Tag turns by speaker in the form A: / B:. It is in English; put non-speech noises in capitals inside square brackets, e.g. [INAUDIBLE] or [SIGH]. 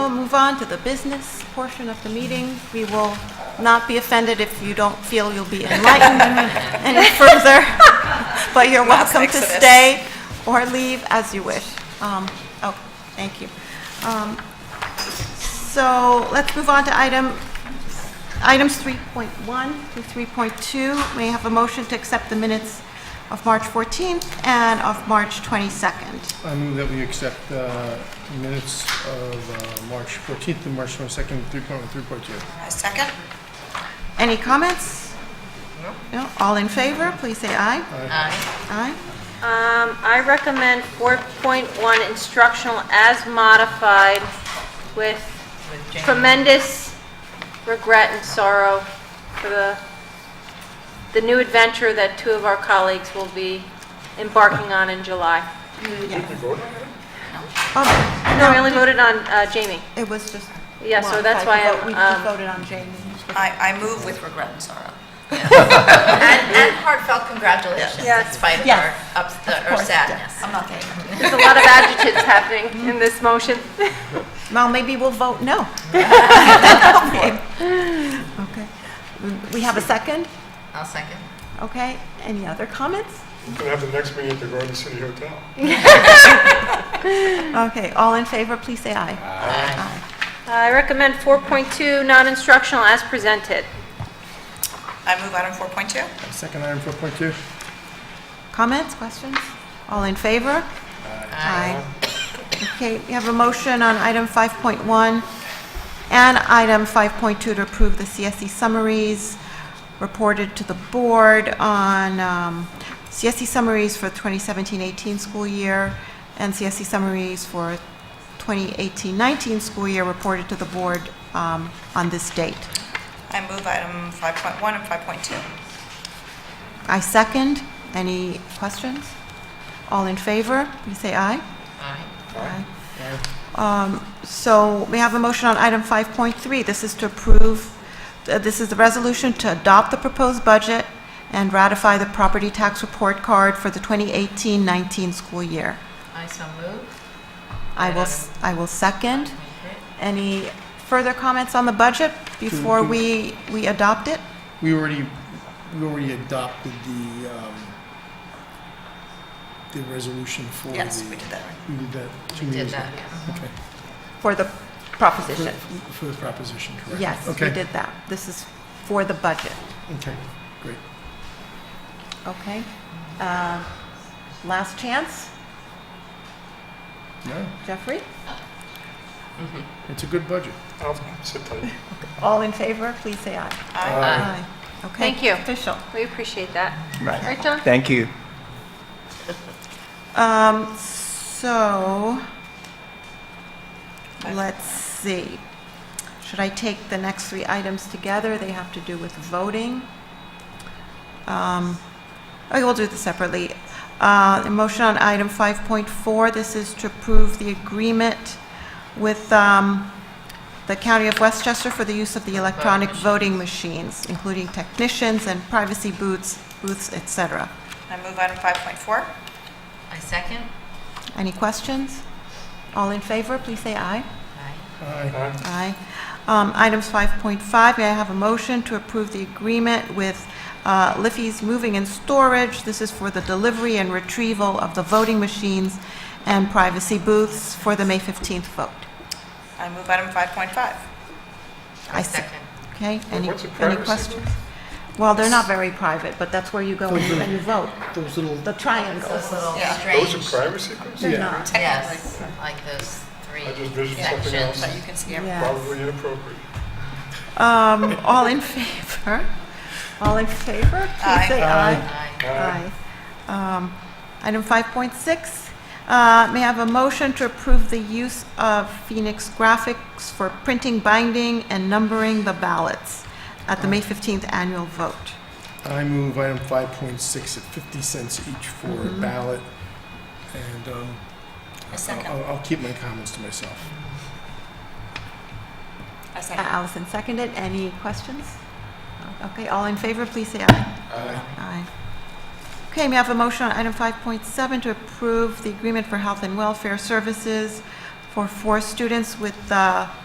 A: We'll move on to the business portion of the meeting. We will not be offended if you don't feel you'll be enlightened any further, but you're welcome to
B: Exodus.
A: stay or leave as you wish. Um, Oh, thank you. Um, So let's move on to item, items 3.1 through 3.2. May I have a motion to accept the minutes of March 14th and of March 22nd?
C: I move that we accept the minutes of uh, March 14th and March 22nd, 3.1, 3.2.
B: A second?
A: Any comments? No. All in favor, please say aye.
B: Aye.
A: Aye.
D: Um, I recommend 4.1 instructional as modified with
B: With Jane.
D: tremendous regret and sorrow for the, the new adventure that two of our colleagues will be embarking on in July.
A: Oh,
D: No, we only voted on uh, Jamie.
A: It was just.
D: Yeah, so
A: one.
D: that's
A: I
D: why
A: vote-
D: I'm,
A: We
D: um,
A: we voted on Jamie.
B: I, I move with regret and sorrow.
E: And, and heartfelt congratulations
D: Yes.
E: in spite of
A: Yes.
E: our, ups, our
A: course,
E: sadness. I'm not kidding.
D: There's a lot of adjectives happening in this motion.
A: Well, maybe we'll vote
D: [LAUGHS]
A: no. Okay. We have a second,
E: I'll second.
A: okay? Any other comments?
F: We're gonna have the next meeting at the Garden City Hotel.
A: Okay, all in favor, please say aye.
D: I recommend 4.2 non-instructional as presented.
B: I move item 4.2.
C: Second item, 4.2.
A: Comments, questions? All in favor? Aye. Okay, we have a motion on item 5.1 and item 5.2 to approve the CSE summaries reported to the board on um, CSE summaries for 2017-18 school year and CSE summaries for 2018-19 school year reported to the board um, on this date.
B: I move item 5.1 and 5.2.
A: I second. Any questions? All in favor, please say aye. Aye. Um, So we have a motion on item 5.3. This is to approve, uh, this is the resolution to adopt the proposed budget and ratify the property tax report card for the 2018-19 school year.
E: I so move.
A: I will, s- I will second. Any further comments on the budget before we, we adopt it?
C: We already, we already adopted the, um, the resolution for the...
B: Yes, we did that. right.
C: We did that two
E: Did
C: meetings ago.
E: that, yeah.
C: Okay.
A: For the proposition.
C: For- For the proposition, correct?
A: Yes, we
C: Okay.
A: did that. This is for the budget,
C: Okay, great.
A: okay? Uh, Last chance,
C: No,
A: Jeffrey?
C: it's a good budget.
F: I'll sit tight.
A: All in favor, please say aye. Aye. Okay.
D: Thank you.
A: Official.
D: We appreciate that.
G: Right.
D: Right, John?
G: Thank you.
A: Um, so, let's see. Should I take the next three items together? They have to do with voting. Um, okay, we'll do this separately. Uh, a motion on item 5.4, this is to approve the agreement with, um, the County of Westchester for the use of the electronic voting machines, including technicians and privacy booths, booths, et cetera.
B: I move item 5.4.
E: I second.
A: Any questions? All in favor, please say aye.
E: Aye.
C: Aye.
F: Aye.
A: Aye. Um, Items 5.5, may I have a motion to approve the agreement with uh, Liffey's Moving and Storage? This is for the delivery and retrieval of the voting machines and privacy booths for the May 15th vote.
B: I move item 5.5.
A: I se-
E: Second.
A: Okay, any,
F: What's a
A: any
F: privacy
A: questions? Well, they're not very private, but that's where you go and you- and you vote,
C: Those little,
A: the triangles.
E: Those little
B: Yeah.
F: Those
E: strange,
F: are privacy questions?
A: They're not,
E: yes, like those three
F: I just visioned something
E: sections.
F: else,
B: But you can see everything.
A: yeah.
F: probably inappropriate.
A: Um, All in favor? All in favor? Please
B: Aye.
A: say aye.
E: Aye.
F: Aye.
A: Aye. Um, Item 5.6, uh, may I have a motion to approve the use of Phoenix Graphics for printing, binding, and numbering the ballots at the May 15th annual vote?
C: I move item 5.6 at 50 cents each for a ballot, and um,
B: A second.
C: I'll, I'll keep my comments to myself.
B: A
A: Uh,
B: second.
A: Allison seconded. Any questions? Okay, all in favor, please say aye.
B: Uh,
A: Aye. Okay, may I have a motion on item 5.7 to approve the agreement for health and welfare services for four students with uh,